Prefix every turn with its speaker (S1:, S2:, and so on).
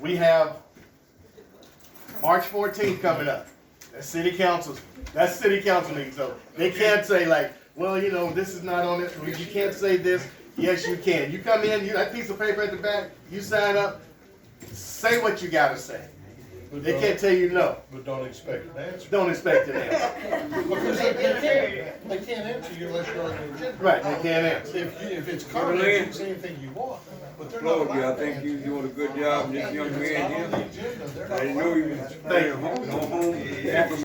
S1: We have March fourteenth coming up. That's city councils, that's city council meeting, so they can't say like, well, you know, this is not on it, you can't say this. Yes, you can. You come in, you, that piece of paper at the back, you sign up, say what you gotta say.
S2: But
S1: They
S2: don't-
S1: can't tell you no.
S2: But don't expect an answer.
S1: Don't expect an answer.
S2: Because they they can't, they can't answer you unless you're on the agenda.
S1: Right, they can't answer.
S2: If, you- if it's comments, you can say anything you want, but they're not
S3: Lord,
S2: allowed to
S3: yeah, I
S2: answer.
S3: think you doing a good job, this young
S2: If it's not on
S3: man
S2: the
S3: here.
S2: agenda, they're
S3: I
S2: not
S3: didn't
S2: allowed
S3: know
S2: to
S3: you was
S2: answer.
S3: staying home, no home.